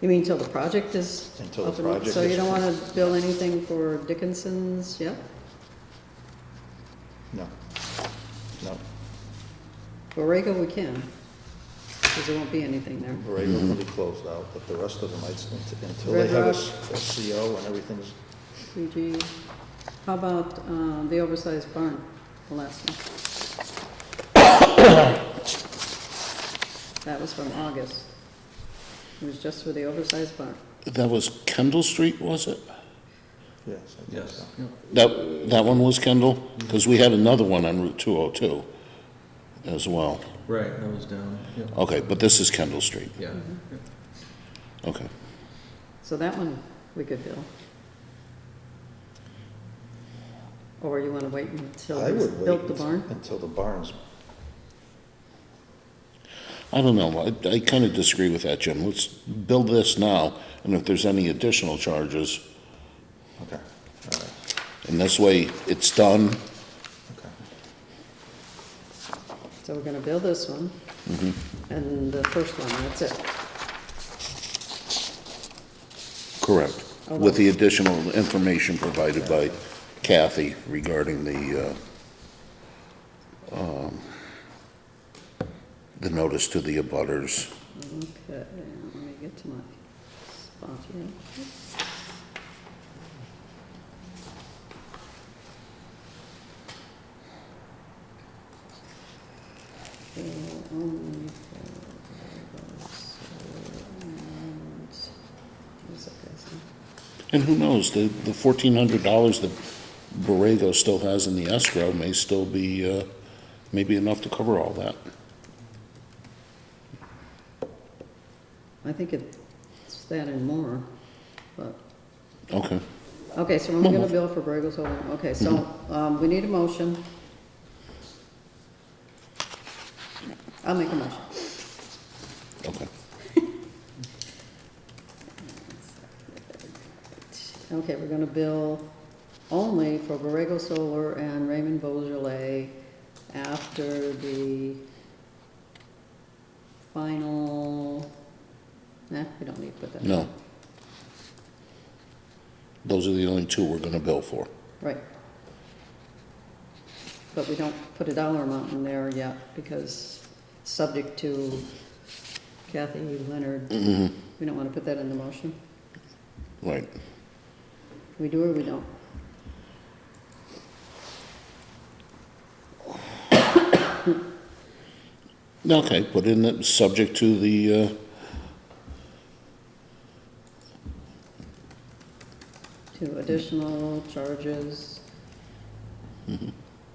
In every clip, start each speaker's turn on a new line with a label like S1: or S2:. S1: You mean till the project is?
S2: Until the
S1: up and-
S2: project
S1: So you
S2: is-
S1: don't wanna build anything for Dickinson's, yeah,
S2: No. No.
S1: Borrego we can, cause there won't be anything there.
S2: Borrego will be closed out, but the rest of them, I'd, until they
S1: Red
S2: have a
S1: Rock.
S2: s- a CO and everything's,
S1: PG, how about, uh, the oversized barn, the last one? That was from August. It was just for the oversized barn.
S3: That was Kendall Street, was it?
S2: yes. I think
S4: Yes.
S2: so.
S3: That, that one was Kendall? Because we had another one on Route 202 as well.
S4: Right, that was down, yeah.
S3: Okay, but this is Kendall Street.
S4: Yeah.
S3: Okay.
S1: So that one we could bill. Or you wanna wait until
S2: I
S1: he's
S2: would
S1: built the
S2: wait
S1: barn?
S2: until the barn's,
S3: I don't know. I, I kind of disagree with that, Jim. Let's build this now, and if there's any additional charges,
S2: okay, all right,
S3: and this way it's done.
S2: okay.
S1: So we're gonna build this one. And the first one, that's it.
S3: Correct. With the additional information provided by Kathy regarding the, uh, um, the notice to the abutters.
S1: Okay, let me get to my spot here. Okay, only for those, and, what's that guy's name?
S3: And who knows, the, the fourteen hundred dollars that Borrego still has in the escrow may still be, uh, maybe enough to cover all that.
S1: I think it's that and more, but,
S3: Okay,
S1: okay, so I'm
S3: Well,
S1: gonna
S3: well-
S1: bill for Borrego's Holding, okay, so, um, we need a motion. I'll make a motion.
S3: okay.
S1: Okay, we're gonna bill only for Borrego Solar and Raymond Beaujolais after the final, nah, we don't need to put that.
S3: No. Those are the only two we're gonna bill for.
S1: Right. But we don't put a dollar amount in there yet, because subject to Kathy Leonard, we don't wanna put that in the motion.
S3: Right.
S1: We do or we don't?
S3: Okay, put in that, subject to the, uh,
S1: to additional charges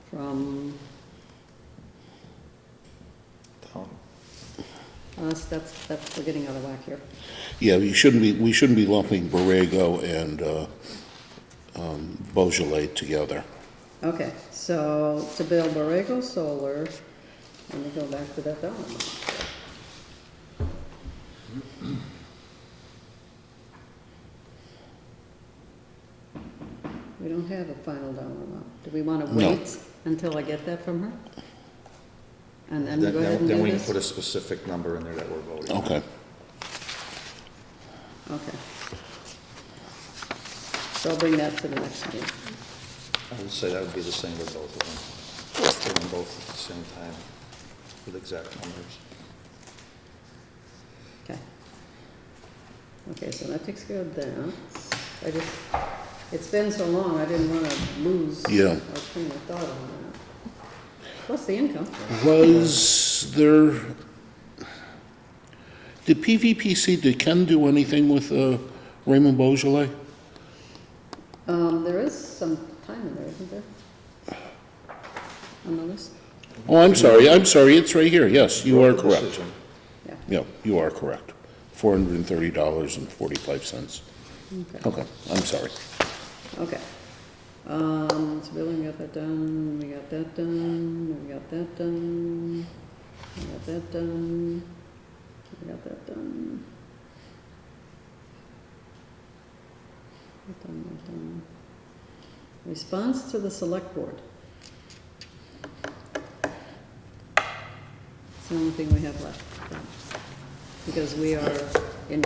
S1: from
S2: Town,
S1: us, that's, that's, we're getting out of whack here.
S3: yeah, you shouldn't be, we shouldn't be lumping Borrego and, uh, um, Beaujolais together.
S1: Okay, so to build Borrego Solar, let me go back to that dollar amount. We don't have a final dollar amount. Do we want to
S3: No.
S1: wait until I get that from her? And then
S2: then,
S1: we go ahead and
S2: then then
S1: do
S2: we can
S1: this?
S2: put a specific number in there that we're voting. on.
S3: Okay,
S1: Okay. So I'll bring that to the next meeting.
S2: I would say that would be the same with both of them, doing both at the same time, with exact numbers.
S1: Okay. Okay, so that takes care of that. I just, it's been so long, I didn't wanna lose.
S3: Yeah.
S1: my train of thought on that. Plus the income.
S3: Was there, did PVPC, did Ken do anything with uh, Raymond Beaujolais?
S1: Um, there is some time in there, isn't there? On the list?
S3: Oh, I'm sorry, I'm sorry, it's right here, yes, you are
S2: The
S3: correct.
S2: decision.
S1: Yeah,
S3: Yeah, you are correct. Four hundred and thirty dollars and forty-five cents.
S1: okay,
S3: Okay, I'm sorry.
S1: okay. Um, so Billy, we got that done, we got that done, we got that done, we got that done, we got that done. That done, that done. Response to the select board. It's the only thing we have left, because we are